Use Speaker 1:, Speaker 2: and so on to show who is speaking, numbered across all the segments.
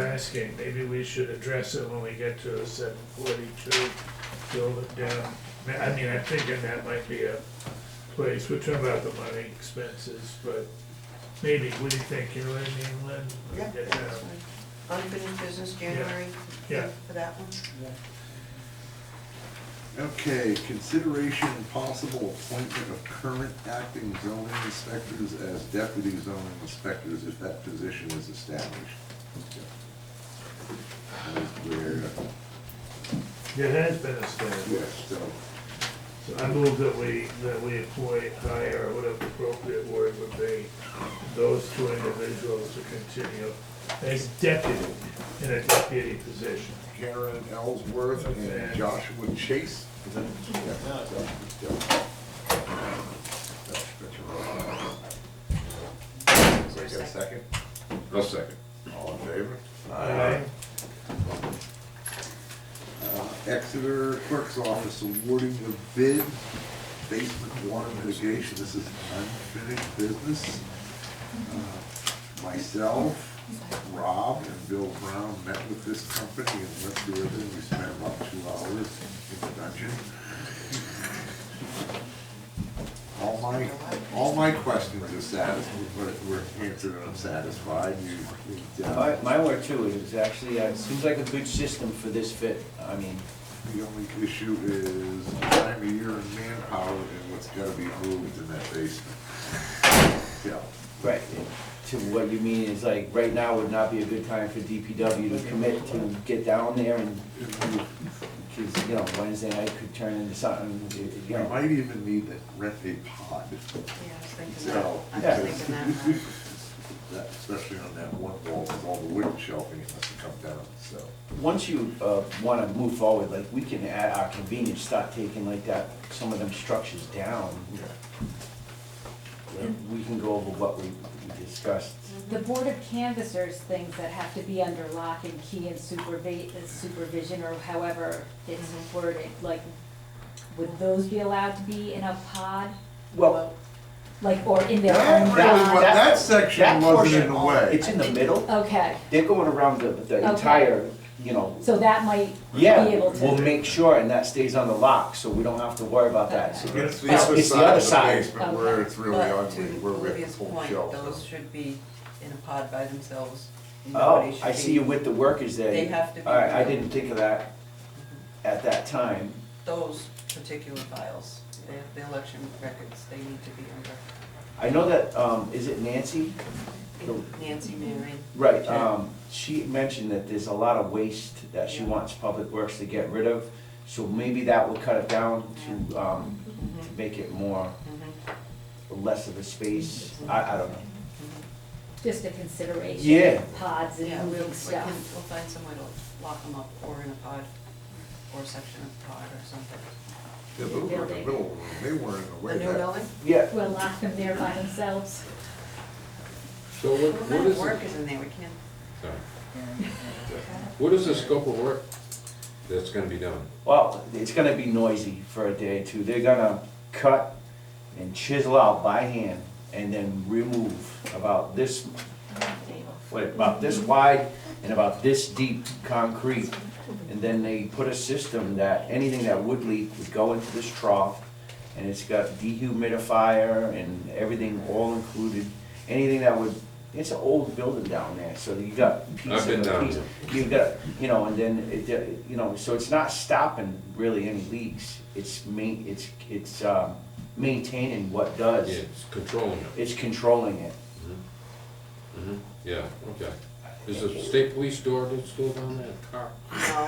Speaker 1: asking, maybe we should address it when we get to the seven forty-two, build it down. I- I mean, I'm thinking that might be a place, we're talking about the money expenses, but maybe, what do you think, you know what I mean, Lynn? uh,
Speaker 2: Yeah,
Speaker 1: Get
Speaker 2: that's
Speaker 1: down.
Speaker 2: fine. Unfinished business, January,
Speaker 1: Yeah.
Speaker 2: for that one?
Speaker 3: Okay, consideration and possible appointment of current acting zoning inspectors as deputy zoning inspectors if that position is established. That is where,
Speaker 1: There has been a study,
Speaker 3: yes, so,
Speaker 1: so I move that we, that we employ, hire, or whatever the appropriate word would be, those two individuals to continue as deputy, in a deputy position.
Speaker 3: Karen Ellsworth and Joshua Chase. Is that- yeah, so, yeah. That's- that's your-
Speaker 2: Is there a
Speaker 3: Take a
Speaker 2: second?
Speaker 3: second? No second. All in favor?
Speaker 1: Aye.
Speaker 3: Uh, Exeter Clerk's Office awarding the bid, basement water mitigation, this is unfinished business. Uh, Myself, Rob, and Bill Brown met with this company and went through everything, we spent about two hours in the dungeon. All my, all my questions are satisfied, were answered and I'm satisfied, you, you,
Speaker 4: My,
Speaker 3: uh,
Speaker 4: my word too is actually, uh, it seems like a good system for this fit, I mean,
Speaker 3: The only issue is time of year and manpower and what's gotta be moved in that basement. Yeah,
Speaker 4: right, to what you mean is like, right now would not be a good time for DPW to commit to get down there and,
Speaker 3: and we-
Speaker 4: cause, you know, Wednesday night could turn into something, you- you
Speaker 3: we
Speaker 4: know.
Speaker 3: might even need to rent a pod,
Speaker 2: Yeah, I was thinking that,
Speaker 3: so.
Speaker 2: I was thinking that. uh,
Speaker 3: That- Especially on that one wall, with all the wooden shelving, it must come down, so.
Speaker 4: Once you, uh, wanna move forward, like, we can at our convenience start taking like that, some of them structures down.
Speaker 3: yeah.
Speaker 4: We can go over what we we discussed.
Speaker 5: The Board of Canvassers, things that have to be under lock and key and supervi- uh, supervision, or however it's worded, like, would those be allowed to be in a pod?
Speaker 4: Well,
Speaker 5: Like, or in their
Speaker 3: That,
Speaker 5: own
Speaker 3: really
Speaker 4: that-
Speaker 3: wa-
Speaker 5: pod?
Speaker 3: that section
Speaker 4: that
Speaker 3: wasn't in
Speaker 4: portion,
Speaker 3: the way.
Speaker 4: It's in the middle.
Speaker 5: Okay,
Speaker 4: They're going around the, the
Speaker 5: Okay.
Speaker 4: entire, you know,
Speaker 5: so that might be
Speaker 4: yeah,
Speaker 5: able
Speaker 4: we'll
Speaker 5: to,
Speaker 4: make sure and that stays on the lock, so we don't have to worry about that. So
Speaker 5: Okay.
Speaker 3: It's the
Speaker 4: It's-
Speaker 3: other
Speaker 4: it's the other
Speaker 3: side
Speaker 4: side.
Speaker 3: of the basement where
Speaker 5: Okay.
Speaker 3: it's really ugly, where
Speaker 2: But to
Speaker 3: we have
Speaker 2: Olivia's
Speaker 3: full
Speaker 2: point,
Speaker 3: shelves.
Speaker 2: those should be in a pod by themselves. Nobody
Speaker 4: Oh,
Speaker 2: should
Speaker 4: I
Speaker 2: be-
Speaker 4: see you with the workers there.
Speaker 2: They have to be- Mm-hmm.
Speaker 4: All right, I didn't think of that at that time.
Speaker 2: Those particular files, the- the election records, they need to be
Speaker 4: I know that, um, is it Nancy?
Speaker 2: under Nancy Marion.
Speaker 4: Right, um, she mentioned that there's a lot of waste that she wants Public Works to get rid of. So maybe that will cut it down to, um, to make it more, less of a space.
Speaker 2: Mm-hmm.
Speaker 4: I, I don't know.
Speaker 5: just a consideration.
Speaker 4: Yeah.
Speaker 5: Pods
Speaker 2: Yeah, we'll,
Speaker 5: and
Speaker 2: we
Speaker 5: moving
Speaker 2: can,
Speaker 5: stuff.
Speaker 2: we'll find some way to lock them up or in a pod, or a section of pod or something.
Speaker 3: Yeah, but we were in the middle, they weren't in the way.
Speaker 2: The new
Speaker 3: that-
Speaker 2: building?
Speaker 4: Yeah,
Speaker 5: We'll lock them there by themselves.
Speaker 6: So what,
Speaker 2: Well,
Speaker 6: what
Speaker 2: then
Speaker 6: is,
Speaker 2: work
Speaker 6: the-
Speaker 2: is in there, we can't.
Speaker 6: sorry. what is the scope of work that's gonna be done?
Speaker 4: Well, it's gonna be noisy for a day or two. They're gonna cut and chisel out by hand and then remove about this, what, about this wide and about this deep concrete. And then they put a system that anything that would leak would go into this trough. And it's got dehumidifier and everything all included. Anything that would, it's an old building down there, so you got piece
Speaker 6: I've been
Speaker 4: of
Speaker 6: down
Speaker 4: piece.
Speaker 6: there.
Speaker 4: You've got, you know, and then, it, uh, you know, so it's not stopping really any leaks. It's main, it's, it's, um, maintaining what does.
Speaker 6: It's controlling it.
Speaker 4: It's controlling it.
Speaker 6: Mhm. Yeah, okay. Is the state police door that's still down there, car? No, all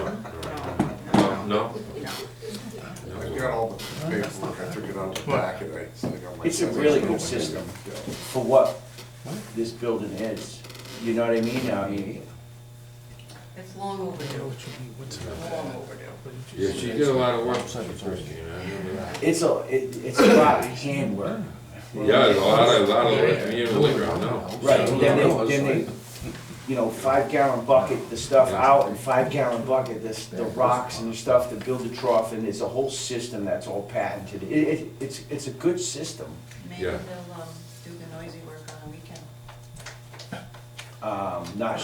Speaker 6: right. no,
Speaker 2: No, no.
Speaker 3: I
Speaker 6: no.
Speaker 3: got all the paperwork, I took it out the back and I still got my.
Speaker 4: It's a really good system. For what this building is. You know what I mean? I mean,
Speaker 2: It's long overdue, long overdue.
Speaker 6: Yeah, she did a lot of work, Christine, I remember that.
Speaker 4: it's a, it, it's a lot of handwork.
Speaker 6: Yeah, a lot of, a lot of work, me and Woodrow, no.
Speaker 4: Right, and then they, then they, you know, five gallon bucket the stuff out and five gallon bucket this, the rocks and the stuff to build the trough and it's a whole system that's all patented. It, it, it's, it's a good system.
Speaker 2: Maybe
Speaker 6: Yeah.
Speaker 2: they'll, um, do the noisy work on the weekend.
Speaker 4: Um, not